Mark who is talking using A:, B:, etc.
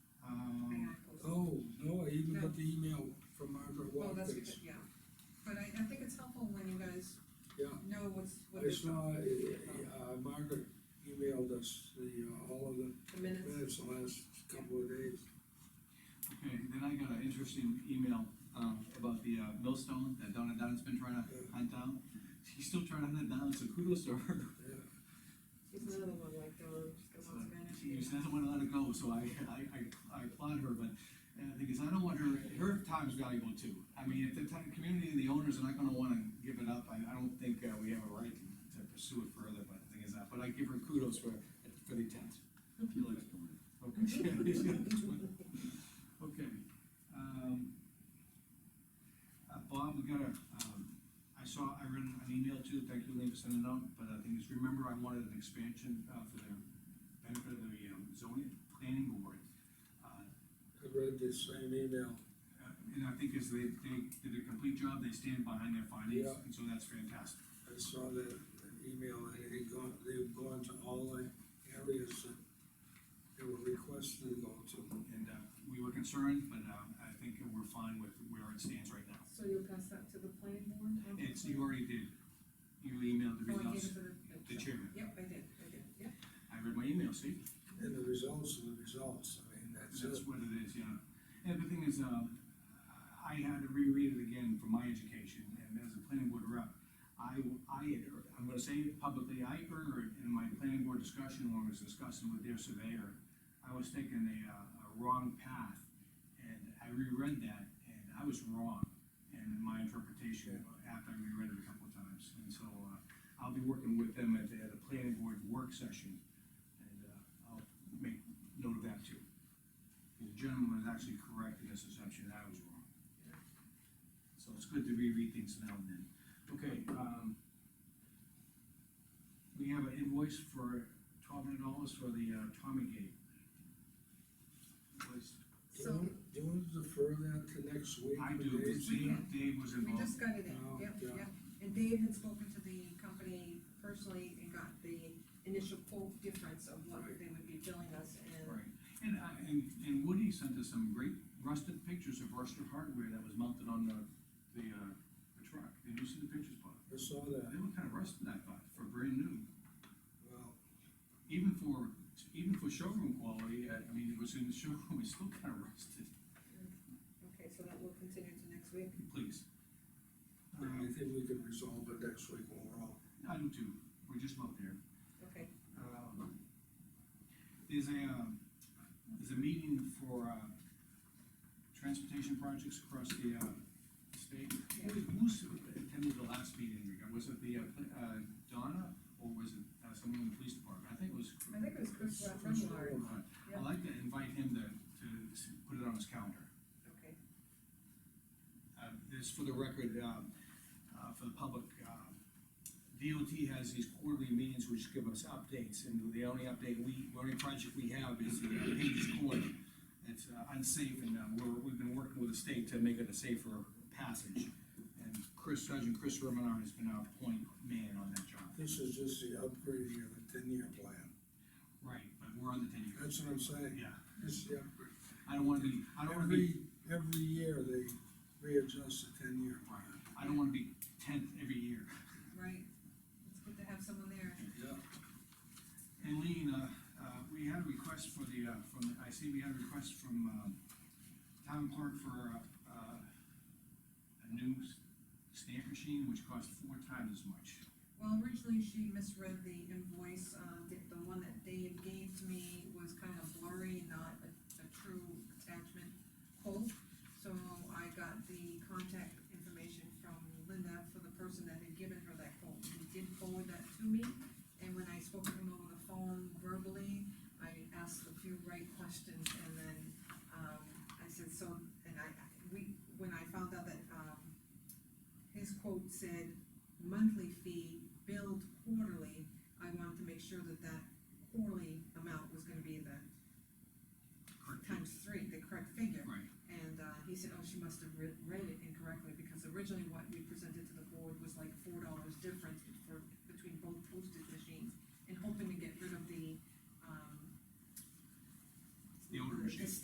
A: Um,
B: Oh, got the email from Margaret
C: Well, Oh, that's
B: Watkins.
C: good, yeah, but I, I think it's helpful when you guys
B: Yeah.
C: know what's, what
B: I
C: is
B: saw, uh, uh, Margaret emailed us the, uh, all of the
C: the minutes.
B: minutes the last couple of days.
A: Okay, then I got an interesting email, um, about the, uh, millstone that Donna Dunn's been trying to hunt down. She's still trying to hunt it down, so kudos to her.
B: Yeah,
C: There's another one like Dawn, that wants to manage
A: She
C: it.
A: just doesn't wanna let it go, so I, I, I, I applaud her, but, and the thing is, I don't want her, her time's valuable too. I mean, if the town, community and the owners are not gonna wanna give it up, I, I don't think, uh, we have a right to pursue it further, but the thing is, uh, but I give her kudos for, for the attempt.
D: If you like doing it.
A: Okay. Okay, um. Uh, Bob, we got a, um, I saw, I read an email too, thank you, Lee, for sending it out, but the thing is, remember, I wanted an expansion, uh, for the benefit of the um, zoning planning board. Uh,
B: I read this same email.
A: uh, And I think as they, they did a complete job, they stand behind their findings,
B: Yeah.
A: and so that's fantastic.
B: I saw that email, and they gone, they've gone to all the areas that they were requested to go to.
A: And, uh, we were concerned, but, um, I think we're fine with where it stands right now.
C: So you'll pass that to the planning board?
A: It's, you already did, you emailed the
C: Oh, I gave
A: results.
C: it to the.
A: The chairman,
C: Yep, I did, I did, yep.
A: I read my email, see,
B: And the results are the results, I mean, that's
A: that's
B: it.
A: what it is, yeah. And the thing is, um, I had to reread it again for my education, and as a planning board rep, I, I, had er- I'm gonna say it publicly, I erred in my planning board discussion when I was discussing with their surveyor. I was taking a, uh, a wrong path, and I reread that, and I was wrong in my interpretation after I reread it a couple of times. And so, uh, I'll be working with them at the, at the planning board work session, and, uh, I'll make note of that too. The gentleman was actually correct in his assumption, that I was wrong. So it's good to reread things now and then. Okay, um, we have an invoice for twelve hundred dollars for the uh, Tommy Gate. Was,
B: Do you
C: So,
B: want- do you want to defer that to next week?
A: I
B: for
A: do,
B: Dave?
A: because Dave, Dave was
C: we
A: involved.
C: just got it in,
B: Oh,
C: yep,
B: yeah.
C: yep. And Dave had spoken to the company personally and got the initial quote difference of what
B: Right.
C: they would be billing us and.
A: Right, and, I- and, and Woody sent us some great rusted pictures of rusted hardware that was mounted on the, the, uh, the truck. Did you see the pictures, Bob?
B: I saw that,
A: They were kind of rusted, I thought, for brand new.
B: well,
A: even for, even for showroom quality, I, I mean, it was in the showroom, it's still kind of rusted,
C: Okay, so that will continue to next week.
A: please.
B: I think we can resolve it next week overall.
A: I do too, we're just about there.
C: Okay,
A: Um, There's a, um, there's a meeting for, uh, transportation projects across the, uh, state. Who, who s- attended the last meeting, Rick? was it the, uh, pl- uh, Donna, or was it uh, someone in the police department? I think it was.
C: I think it was uh, Chris Ra-
B: Chris
C: Remillard.
B: Remillard.
A: I'd like to invite him to, to s- put it on his calendar.
C: okay,
A: Uh, This, for the record, um, uh, for the public, um, DOT has these quarterly meetings which give us updates, and the only update we, the only project we have is the uh, Page's Corner. It's uh, unsafe, and uh, we're, we've been working with the state to make it a safer passage. And Chris, Sergeant Chris Romanar has been our point man on that job.
B: This is just the upgrading of the ten-year plan,
A: Right, but we're on the ten year.
B: that's what I'm saying,
A: Yeah,
B: this is the upgrade.
A: I don't wanna be, I don't wanna be,
B: Every, every year they readjust the ten-year plan.
A: I don't wanna be tenth every year.
C: right. It's good to have someone there.
B: Yeah.
A: And Lean, uh, uh, we had a request for the, uh, from, I see we had a request from, um, town clerk for, uh, uh, a new s- stamp machine, which cost four times as much.
C: Well, originally she misread the invoice, uh, the, the one that Dave gave to me was kind of blurry, not a, a true attachment quote. So I got the contact information from Linda for the person that had given her that quote, and he did forward that to me. And when I spoke to him over the phone verbally, I asked a few right questions, and then, um, I said, so, and I, I- we, when I found out that, um, his quote said, monthly fee billed quarterly, I wanted to make sure that that quarterly amount was gonna be the uh, "Oh, um,